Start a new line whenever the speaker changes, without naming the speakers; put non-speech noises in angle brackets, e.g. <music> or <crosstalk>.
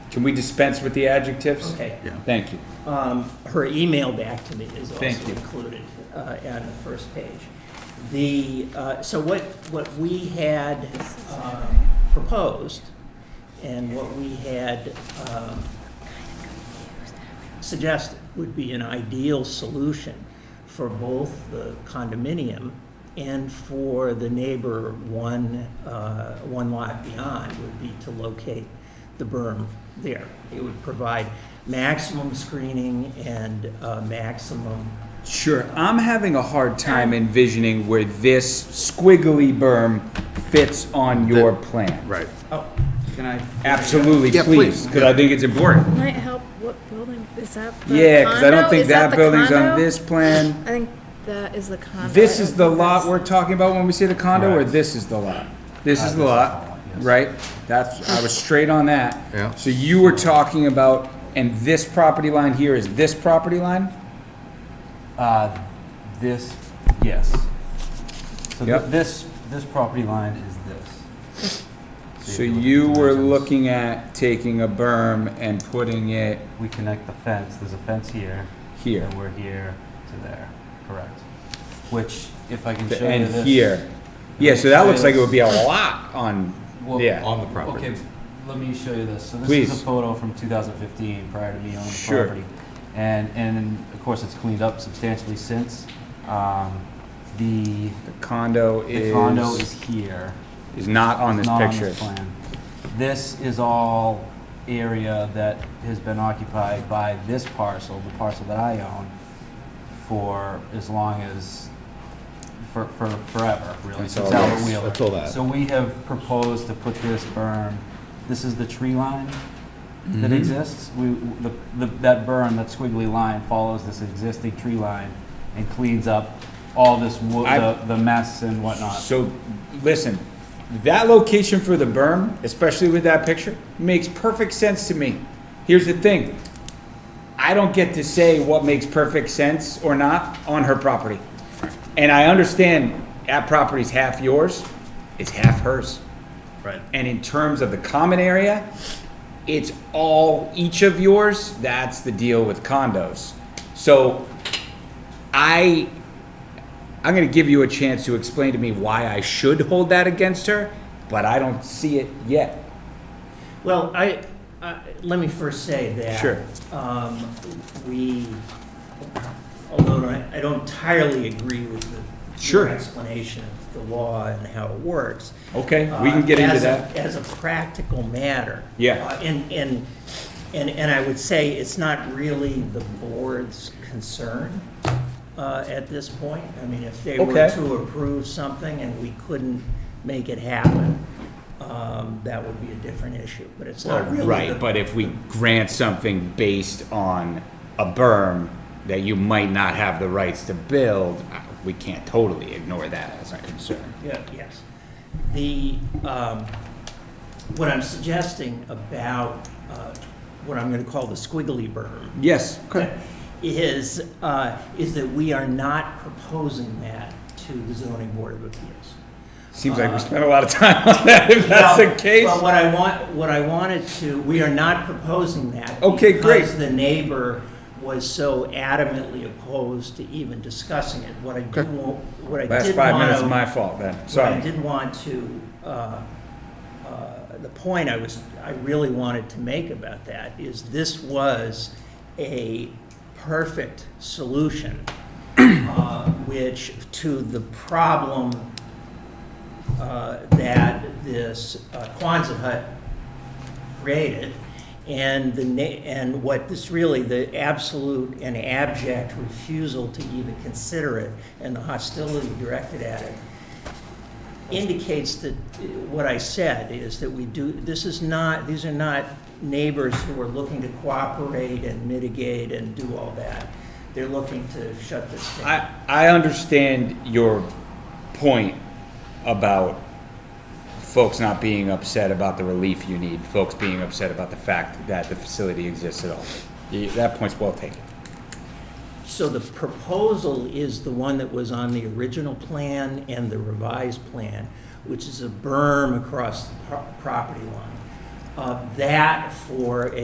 Can we dispense with the adjectives?
Okay.
Yeah.
Thank you.
Um, Her email back to me is also
Thank you.
included uh, on the first page. The, uh, so what, what we had um, proposed and what we had um, suggested would be an ideal solution for both the condominium and for the neighbor one, uh, one lot beyond would be to locate the berm there. It would provide maximum screening and uh, maximum,
Sure, I'm having a hard time envisioning where this squiggly berm fits on your plan.
Right.
oh,
Can I? Absolutely,
Yeah,
please,
please.
because I think it's important.
Might help, what building, is that the condo?
Yeah, because I don't think
Is that
that
the
building's on
condo?
this plan.
I think that is the condo.
This
I
is
don't
the
think
lot
that's-
we're talking about when we say the condo, or
Correct.
this is the lot? This is
Uh, this is
the
the
lot,
lot, yes.
right? That's, I was straight on that.
Yeah.
So you were talking about, and this property line here is this property line?
Uh, this, yes. So th-
Yep.
this, this property line is this.
So
if
you
look at the
were
dimensions,
looking at taking a berm and putting it
We connect the fence, there's a fence here,
here,
and we're here to there, correct? Which, if I can show you
and
this.
here. Yeah, so that looks like it would be a lot on,
Well,
yeah.
On the property.
Okay, let me show you this. So this
Please.
is a photo from 2015, prior to me owning the
Sure.
property, and and of course it's cleaned up substantially since. Um, the
The condo
the condo
is,
is here.
is not on this
It's not
picture.
this plan. This is all area that has been occupied by this parcel, the parcel that I own, for as long as, for, for forever, really.
That's
since
all
Albert
this.
Wheeler.
That's all that.
So we have proposed to put this berm, this is the tree line that
Mm-hmm.
Mhm.
exists. We, the, the, that berm, that squiggly line follows this existing tree line and cleans up all this wood,
I-
the, the mess and whatnot.
So, listen, that location for the berm, especially with that picture, makes perfect sense to me. Here's the thing. I don't get to say what makes perfect sense or not on her property. And I understand that property's half yours, it's half hers.
Right.
And in terms of the common area, it's all each of yours. That's the deal with condos. So I, I'm going to give you a chance to explain to me why I should hold that against her, but I don't see it yet.
well, I, I- let me first say that.
Sure.
um, We, although I I don't entirely agree with the your
Sure.
explanation of the law and how it works,
Okay, we can get
uh,
into
as a-
that.
As a practical matter.
Yeah.
Uh, And, and, and, and I would say it's not really the board's concern uh, at this point. I mean, if they were
Okay.
to approve something and we couldn't make it happen, um, that would be a different issue, but it's not really. the-
Right, but if we grant something based on a berm that you might not have the rights to build, uh, we can't totally ignore that as a concern.
Yeah, yes. The, um, what I'm suggesting about uh, what I'm going to call the squiggly berm
Yes.
is, uh, is that we are not proposing that to the zoning board of appeals.
Seems like we spent a lot of time <laughs> on that, if that's
Uh, Well,
the case.
Well, what I want, what I wanted to, we are not proposing that.
Okay, great.
Because the neighbor was so adamantly opposed to even discussing it. What I do, wa- what I did want to.
Last five minutes is my fault then,
What I
sorry.
did want to, uh, uh, the point I was, I really wanted to make about that is this was a perfect solution, uh, which to the problem uh, that this uh, Quonset hut created. And the, na- and what this really, the absolute and abject refusal to even consider it and the hostility directed at it indicates that uh, what I said is that we do, this is not, these are not neighbors who are looking to cooperate and mitigate and do all that. They're looking to shut this down.
I, I understand your point about folks not being upset about the relief you need, folks being upset about the fact that the facility exists at all. Y- That point's well taken.
So the proposal is the one that was on the original plan and the revised plan, which is a berm across the pro- property line. Uh, That for a